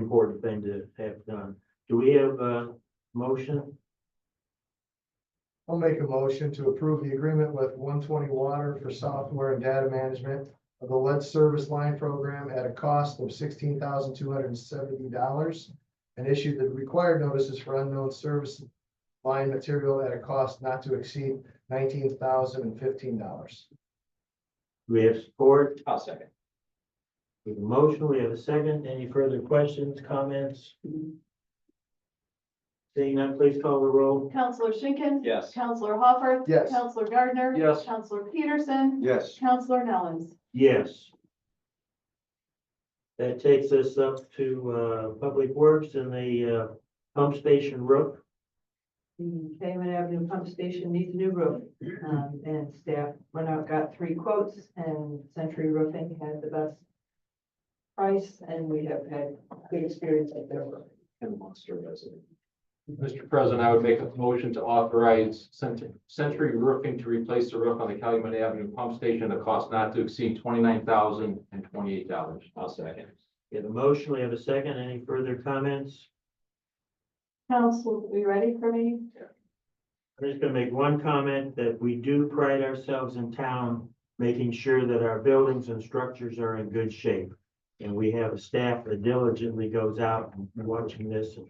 important thing to have done. Do we have a motion? I'll make a motion to approve the agreement with one twenty water for software and data management of the lead service line program at a cost of sixteen thousand two hundred and seventy dollars and issue the required notices for unknown service line material at a cost not to exceed nineteen thousand and fifteen dollars. Do we have support? I'll second. We have a motion, we have a second. Any further questions, comments? Seeing none, please call the roll. Counselor Schinkin. Yes. Counselor Hopper. Yes. Counselor Gardner. Yes. Counselor Peterson. Yes. Counselor Nellens. Yes. That takes us up to uh, Public Works and the uh, pump station roof. The Damon Avenue Pump Station needs a new roof, um, and staff went out, got three quotes, and Century Roofing had the best price, and we have had good experience at their roof. And Munster resident. Mr. President, I would make a motion to authorize Cent- Century Roofing to replace the roof on the Calumet Avenue Pump Station at a cost not to exceed twenty-nine thousand and twenty-eight dollars. I'll second. We have a motion, we have a second. Any further comments? Counsel, are you ready for me? I'm just gonna make one comment that we do pride ourselves in town, making sure that our buildings and structures are in good shape. And we have a staff that diligently goes out and watching this. and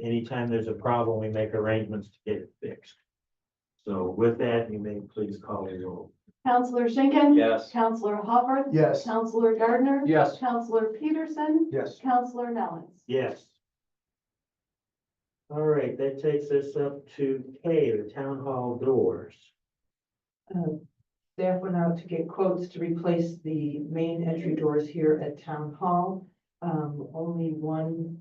Anytime there's a problem, we make arrangements to get it fixed. So with that, you may please call the roll. Counselor Schinkin. Yes. Counselor Hopper. Yes. Counselor Gardner. Yes. Counselor Peterson. Yes. Counselor Nellens. Yes. All right, that takes us up to K, the town hall doors. Um, Staff went out to get quotes to replace the main entry doors here at Town Hall. Um, Only one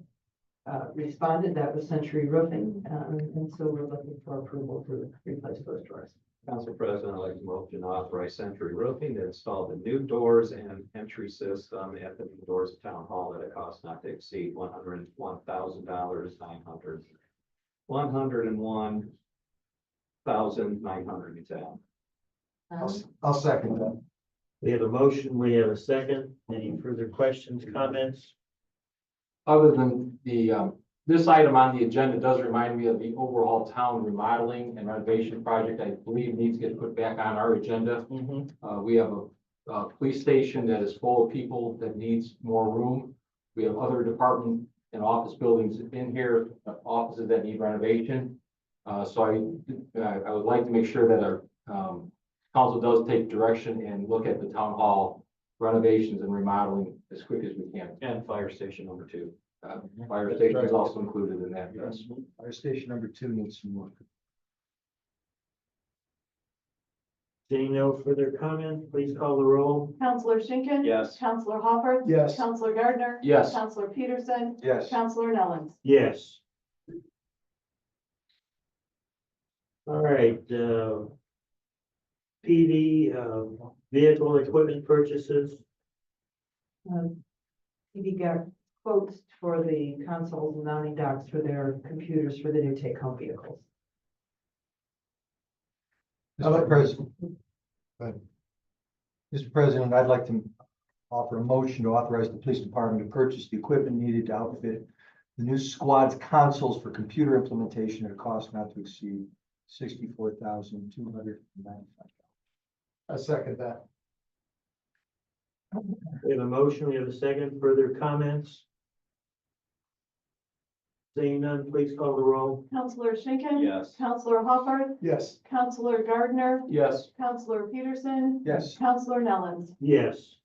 uh, responded, that was Century Roofing, um, and so we're looking for approval to replace those doors. Council President, I'd like to motion to authorize Century Roofing to install the new doors and entry system at the new doors of Town Hall at a cost not to exceed one hundred and one thousand dollars, nine hundred. One hundred and one thousand, nine hundred and ten. I'll, s- I'll second that. We have a motion, we have a second. Any further questions, comments? Other than the, um, this item on the agenda does remind me of the overall town remodeling and renovation project I believe needs to get put back on our agenda. Uh, we have a, a police station that is full of people that needs more room. We have other department and office buildings in here, uh, offices that need renovation. Uh, so I, I, I would like to make sure that our, um, council does take direction and look at the town hall renovations and remodeling as quick as we can. Uh, And fire station number two. Fire station is also included in that, yes. Our station number two needs some work. Seeing no further comment, please call the roll. Counselor Schinkin. Yes. Counselor Hopper. Yes. Counselor Gardner. Yes. Counselor Peterson. Yes. Counselor Nellens. Yes. All right, uh. PD, uh, vehicle equipment purchases. Um, We got quotes for the consoles and mounting docks for their computers for the new take-home vehicles. Mr. President. Mr. President, I'd like to offer a motion to authorize the police department to purchase the equipment needed to outfit the new squad's consoles for computer implementation at a cost not to exceed sixty-four thousand two hundred and ninety-five. I second that. We have a motion, we have a second. Further comments? Seeing none, please call the roll. Counselor Schinkin. Yes. Counselor Hopper. Yes. Counselor Gardner. Yes. Counselor Peterson. Yes. Counselor Nellens. Yes.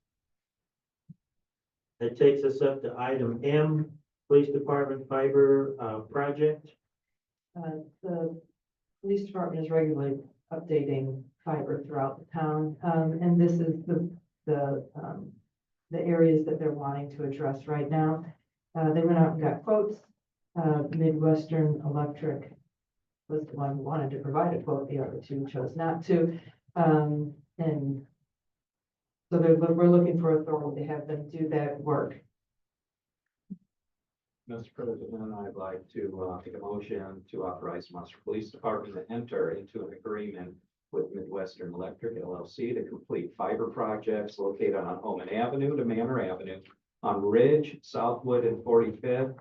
That takes us up to item M, Police Department Fiber uh, Project. Uh, The police department is regularly updating fiber throughout the town, um, and this is the, the, um, the areas that they're wanting to address right now. Uh, They went out and got quotes. Uh, Midwestern Electric was the one who wanted to provide a quote, the other two chose not to. Um, And so they're, we're looking for authority to have them do that work. Mr. President, I'd like to uh, make a motion to authorize Munster Police Department to enter into an agreement with Midwestern Electric LLC to complete fiber projects located on Omen Avenue to Manor Avenue on Ridge, Southwood, and Forty-Fifth.